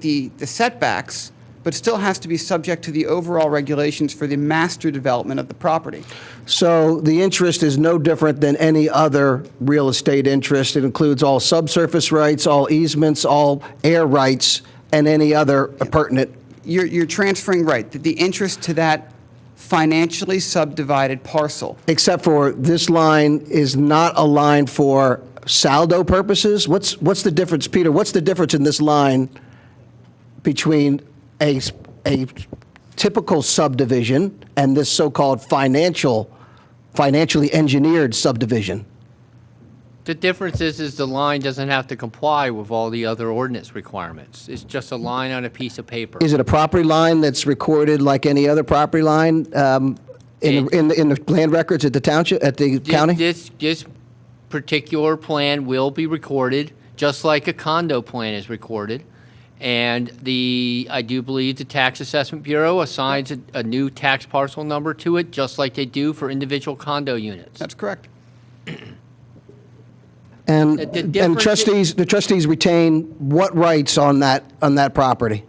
the, the setbacks, but still has to be subject to the overall regulations for the master development of the property. So the interest is no different than any other real estate interest. It includes all subsurface rights, all easements, all air rights, and any other pertinent. You're, you're transferring, right, the, the interest to that financially subdivided parcel. Except for this line is not a line for saldo purposes. What's, what's the difference, Peter? What's the difference in this line between a, s- a typical subdivision and this so-called financial, financially engineered subdivision? The difference is, is the line doesn't have to comply with all the other ordinance requirements. It's just a line on a piece of paper. Is it a property line that's recorded like any other property line um, in, the- in, the- in the land records at the township, at the Thi- county? This, this particular plan will be recorded, just like a condo plan is recorded. And the, I do believe the Tax Assessment Bureau assigns a, a new tax parcel number to it, just like they do for individual condo units. That's correct. And, the and difference- trustees, the trustees retain what rights on that, on that property?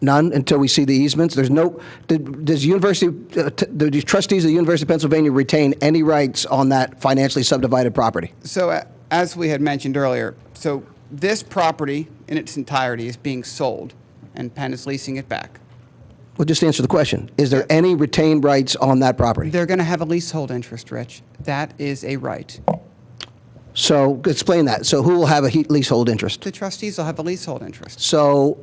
None until we see the easements? There's no, did- does University, uh, t- do the trustees of the University of Pennsylvania retain any rights on that financially subdivided property? So a- as we had mentioned earlier, so this property in its entirety is being sold, and Penn is leasing it back. Well, just answer the question. Is there any retained rights on that property? They're going to have a leasehold interest, Rich. That is a right. So explain that. So who will have a he- leasehold interest? The trustees will have a leasehold interest. So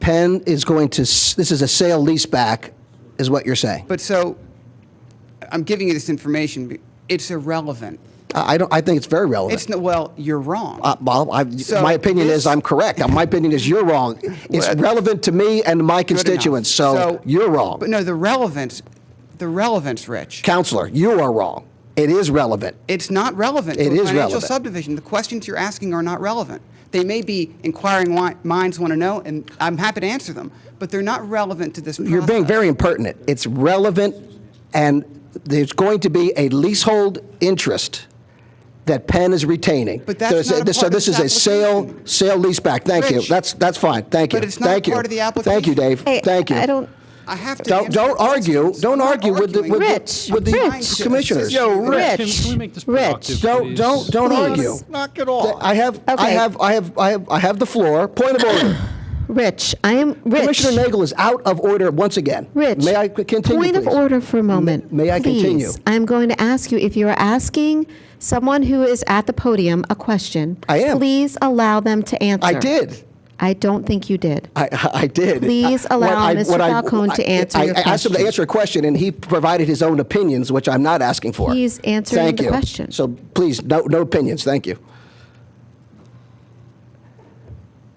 Penn is going to, s- this is a sale leaseback, is what you're saying? But so, I'm giving you this information. be- It's irrelevant. I I don't, I think it's very relevant. It's no, well, you're wrong. Uh, Well, I- So my opinion this- is I'm correct. Uh, My opinion is you're wrong. It's Well- relevant to me and my Good enough. constituents, so you're wrong. But no, the relevance, the relevance, Rich. Counselor, you are wrong. It is relevant. It's not relevant to It a is financial relevant. subdivision. The questions you're asking are not relevant. They may be inquiring wi- minds want to know, and I'm happy to answer them, but they're not relevant to this process. You're being very impertinent. It's relevant, and there's going to be a leasehold interest that Penn is retaining. But that's There's a- not a this- part of So this this is a sale, application. sale leaseback. Thank you. Rich. That's, that's fine. Thank you. But it's not a Thank you. part of the Thank you, application. Dave. Hey, Thank you. I don't, I have to Don't, answer don't the argue, questions. don't I'm not argue with the, with arguing. the- Rich, with Rich. the commissioners. Yo, Rich. Can, can we make this Rich. productive? Don't, please? don't, don't Please. argue. Knock it off. I have, I Okay. have, I have, I have, I have the floor. Point of order. Rich, I am, Rich. Commissioner Nagel is out of order once again. Rich. May I c- continue, Point of please? order for a moment. may I continue? Please, I'm going to ask you, if you're asking someone who is at the podium a question. I am. Please allow them to answer. I did. I don't think you did. I, I did. Please I- what allow I- Mr. what I- Falcone to I- answer I- your I asked him to question. answer a question, and he provided his own opinions, which I'm not asking for. He's answering Thank the you. question. So please, no, no opinions. Thank you.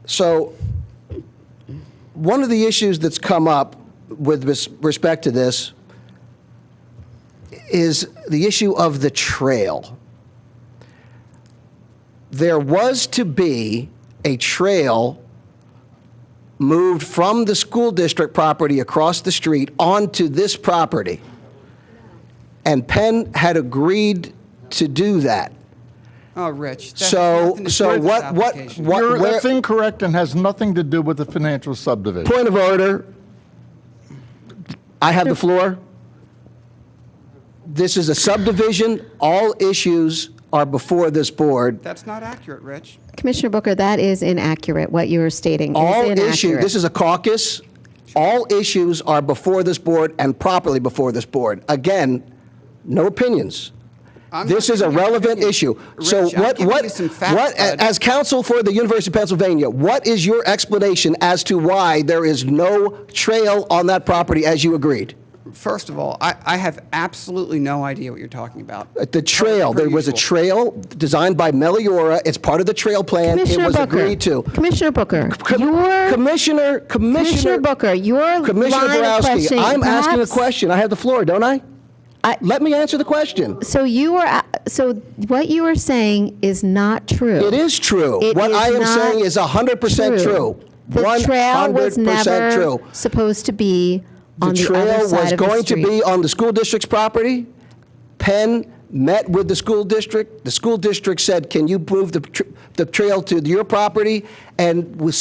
So one of the issues that's come up with res- respect to this is the issue of the trail. There was to be a trail moved from the school district property across the street onto this property. And Penn had agreed to do that. Oh, Rich. that has So, nothing to do so with this what, what, application. what, You're- that's where, incorrect and has nothing to do with the financial subdivision. point of order. I have the floor. This is a subdivision. All issues are before this board. That's not accurate, Rich. Commissioner Booker, that is inaccurate, what you are stating. It is All issues, inaccurate. this is a caucus. All issues are before this board and properly before this board. Again, no opinions. I'm This not is a giving you relevant opinions. issue. So Rich, I'm what, giving what, you some facts, what, bud. as counsel for the University of Pennsylvania, what is your explanation as to why there is no trail on that property as you agreed? Uh, First of all, I, I have absolutely no idea what you're talking about. The trail, Per there was a usual. trail designed by Meliora. It's part of the trail plan. It Commissioner was Booker. agreed to. Commissioner Booker, Com- your, Commissioner, Commissioner. Commissioner Booker, your Commissioner line of Borowski, questioning, I'm asking a perhaps- question. I have the floor, don't I? I- Let me answer the question. so you are, a- so what you are saying is not true. It is true. It What is I am not saying is 100% true. The trail 100% was never true. supposed to be The on the other trail was side of the going to street. be on the school district's property. Penn met with the school district. The school district said, can you prove the, tr- the trail to your property? And was